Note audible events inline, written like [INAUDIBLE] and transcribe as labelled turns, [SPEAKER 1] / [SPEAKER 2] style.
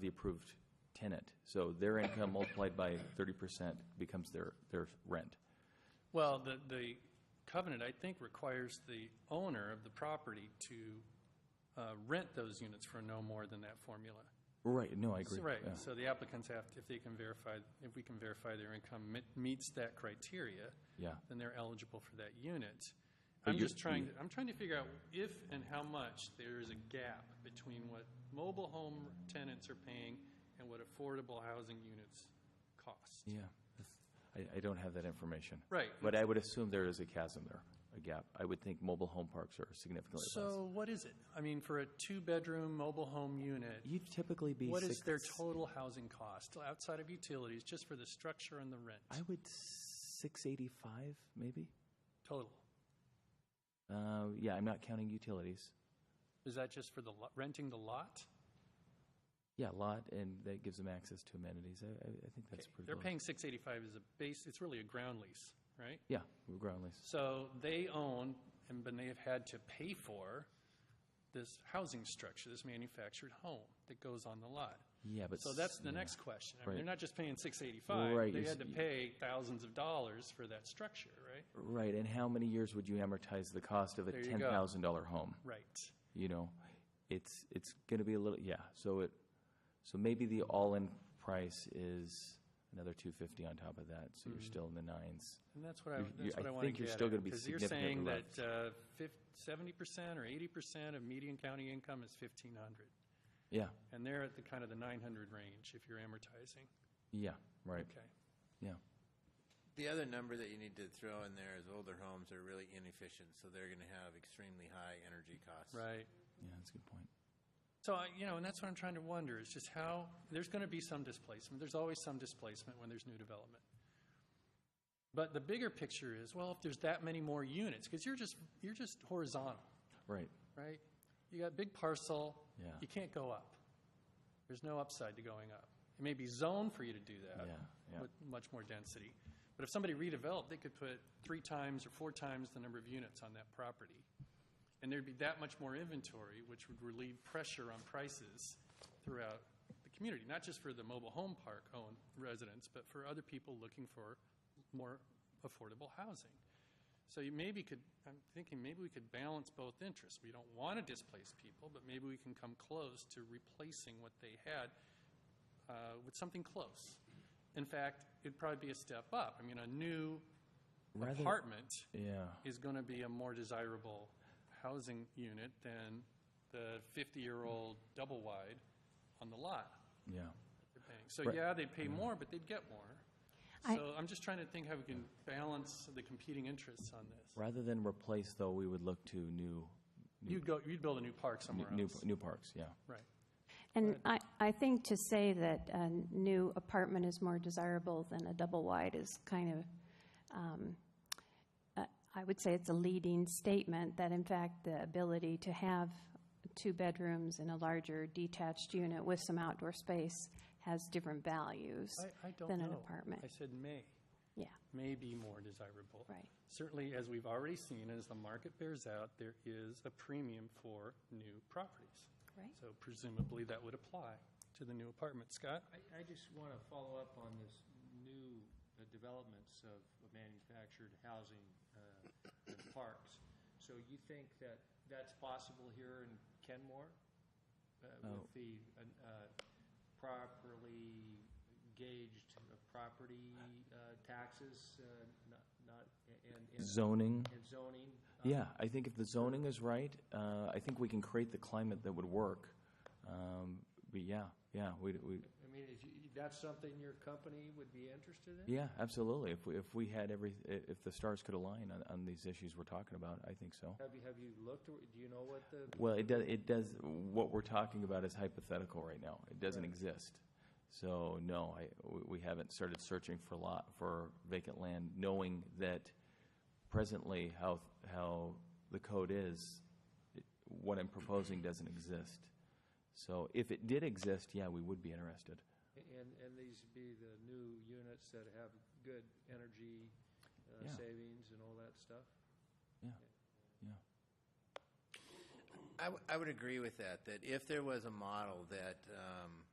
[SPEAKER 1] the approved tenant. So their [COUGHS] income multiplied by thirty percent becomes their, their rent.
[SPEAKER 2] Well, the, the covenant, I think, requires the owner of the property to uh, rent those units for no more than that formula.
[SPEAKER 1] Right, no, I agree.
[SPEAKER 2] Right,
[SPEAKER 1] Yeah.
[SPEAKER 2] so the applicants have, if they can verify, if we can verify their income me- meets that criteria,
[SPEAKER 1] Yeah,
[SPEAKER 2] then they're eligible for that unit.
[SPEAKER 1] But
[SPEAKER 2] I'm
[SPEAKER 1] you-
[SPEAKER 2] just trying, I'm trying to figure out if and how much there is a gap between what mobile home tenants are paying and what affordable housing units cost.
[SPEAKER 1] yeah. That's- I, I don't have that information.
[SPEAKER 2] Right.
[SPEAKER 1] But I would assume there is a chasm there, a gap. I would think mobile home parks are significantly less.
[SPEAKER 2] So what is it? I mean, for a two-bedroom mobile home unit,
[SPEAKER 1] You'd typically be
[SPEAKER 2] what is their
[SPEAKER 1] six-
[SPEAKER 2] total housing cost outside of utilities, just for the structure and the
[SPEAKER 1] I
[SPEAKER 2] rent?
[SPEAKER 1] would six eighty-five, maybe?
[SPEAKER 2] Total.
[SPEAKER 1] Uh, yeah, I'm not counting utilities.
[SPEAKER 2] Is that just for the, lo- renting the lot?
[SPEAKER 1] Yeah, a lot, and that gives them access to amenities. I, I, I think that's pretty
[SPEAKER 2] They're
[SPEAKER 1] low.
[SPEAKER 2] paying six eighty-five as a base, it's really a ground lease, right?
[SPEAKER 1] Yeah, we're ground lease.
[SPEAKER 2] So they own, and but they have had to pay for this housing structure, this manufactured home that goes on the lot.
[SPEAKER 1] Yeah, but.
[SPEAKER 2] So
[SPEAKER 1] s-
[SPEAKER 2] that's the
[SPEAKER 1] yeah.
[SPEAKER 2] next question. I mean,
[SPEAKER 1] Right.
[SPEAKER 2] they're not just paying six eighty-five,
[SPEAKER 1] Right,
[SPEAKER 2] they
[SPEAKER 1] you s-
[SPEAKER 2] had to pay thousands of dollars for that structure, right?
[SPEAKER 1] Right, and how many years would you amortize the cost of a
[SPEAKER 2] There you go.
[SPEAKER 1] ten thousand dollar home?
[SPEAKER 2] Right.
[SPEAKER 1] You know, it's, it's gonna be a little, yeah, so it, so maybe the all-in price is another two fifty on top of that, so
[SPEAKER 2] Mm-hmm.
[SPEAKER 1] you're still in the nines.
[SPEAKER 2] And that's what I,
[SPEAKER 1] You- you-
[SPEAKER 2] that's what
[SPEAKER 1] I
[SPEAKER 2] I want to
[SPEAKER 1] think
[SPEAKER 2] get
[SPEAKER 1] you're still gonna be
[SPEAKER 2] Because you're saying
[SPEAKER 1] significantly
[SPEAKER 2] that uh, fif- 70% or 80% of median county income is 1,500.
[SPEAKER 1] Yeah,
[SPEAKER 2] And they're at the kind of the 900 range if you're amortizing.
[SPEAKER 1] yeah, right,
[SPEAKER 2] Okay.
[SPEAKER 1] yeah.
[SPEAKER 3] The other number that you need to throw in there is older homes are really inefficient, so they're going to have extremely high energy costs.
[SPEAKER 2] Right.
[SPEAKER 1] Yeah, that's a good point.
[SPEAKER 2] So, I- you know, and that's what I'm trying to wonder is just how, there's going to be some displacement. There's always some displacement when there's new development. But the bigger picture is, well, if there's that many more units, because you're just, you're just horizontal.
[SPEAKER 1] Right,
[SPEAKER 2] right? You got big parcel.
[SPEAKER 1] Yeah.
[SPEAKER 2] You can't go up. There's no upside to going up. It may be zoned for you to do that
[SPEAKER 1] Yeah, yeah.
[SPEAKER 2] with much more density. But if somebody redeveloped, they could put three times or four times the number of units on that property. And there'd be that much more inventory, which would relieve pressure on prices throughout the community, not just for the mobile home park owned residents, but for other people looking for more affordable housing. So you maybe could, I'm thinking maybe we could balance both interests. We don't want to displace people, but maybe we can come close to replacing what they had uh, with something close. In fact, it'd probably be a step up. I mean, a new
[SPEAKER 1] Rather-
[SPEAKER 2] apartment
[SPEAKER 1] yeah,
[SPEAKER 2] is going to be a more desirable housing unit than the 50-year-old double-wide on the lot
[SPEAKER 1] yeah.
[SPEAKER 2] they're paying. So
[SPEAKER 1] Right. Mm-hmm.
[SPEAKER 2] yeah, they'd pay more, but they'd get more.
[SPEAKER 4] I-
[SPEAKER 2] So I'm just trying to think how we can balance the competing interests on this.
[SPEAKER 1] Rather than replace, though, we would look to new,
[SPEAKER 2] You'd go, you'd build a new park somewhere
[SPEAKER 1] new,
[SPEAKER 2] else.
[SPEAKER 1] new parks, yeah.
[SPEAKER 2] Right.
[SPEAKER 4] And I, I think to say that a new apartment is more desirable than a double wide is kind of, um, uh, I would say it's a leading statement that in fact the ability to have two bedrooms in a larger detached unit with some outdoor space has different values
[SPEAKER 2] I, I don't know.
[SPEAKER 4] than an apartment.
[SPEAKER 2] I said may,
[SPEAKER 4] Yeah,
[SPEAKER 2] may be more desirable.
[SPEAKER 4] right.
[SPEAKER 2] Certainly, as we've already seen, as the market bears out, there is a premium for new properties.
[SPEAKER 4] Right.
[SPEAKER 2] So presumably, that would apply to the new apartment. Scott?
[SPEAKER 5] I, I just want to follow up on this new uh, developments of manufactured housing uh, and parks. So you think that that's possible here in Kenmore? uh,
[SPEAKER 1] Oh.
[SPEAKER 5] With the uh, uh, properly gauged uh, property uh, taxes, uh, not, not, and, and-
[SPEAKER 1] Zoning,
[SPEAKER 5] and zoning? uh,
[SPEAKER 1] Yeah, I think if the zoning is right, uh, I think we can create the climate that would work. Um, But yeah, yeah, we, we-
[SPEAKER 5] I mean, if you, that's something your company would be interested in?
[SPEAKER 1] yeah, absolutely. If we, if we had every, i- if the stars could align on, on these issues we're talking about, I think so.
[SPEAKER 5] Have you, have you looked, or do you know what the
[SPEAKER 1] Well, it does, it does, what we're talking about is hypothetical right now. It doesn't exist. So, no, I, we- we haven't started searching for lot, for vacant land, knowing that presently how, how the code is, it- what I'm proposing doesn't exist. So if it did exist, yeah, we would be interested.
[SPEAKER 5] And, and these would be the new units that have good energy uh,
[SPEAKER 1] Yeah.
[SPEAKER 5] savings and all that stuff?
[SPEAKER 1] Yeah, yeah.
[SPEAKER 3] I, w- I would agree with that, that if there was a model that um,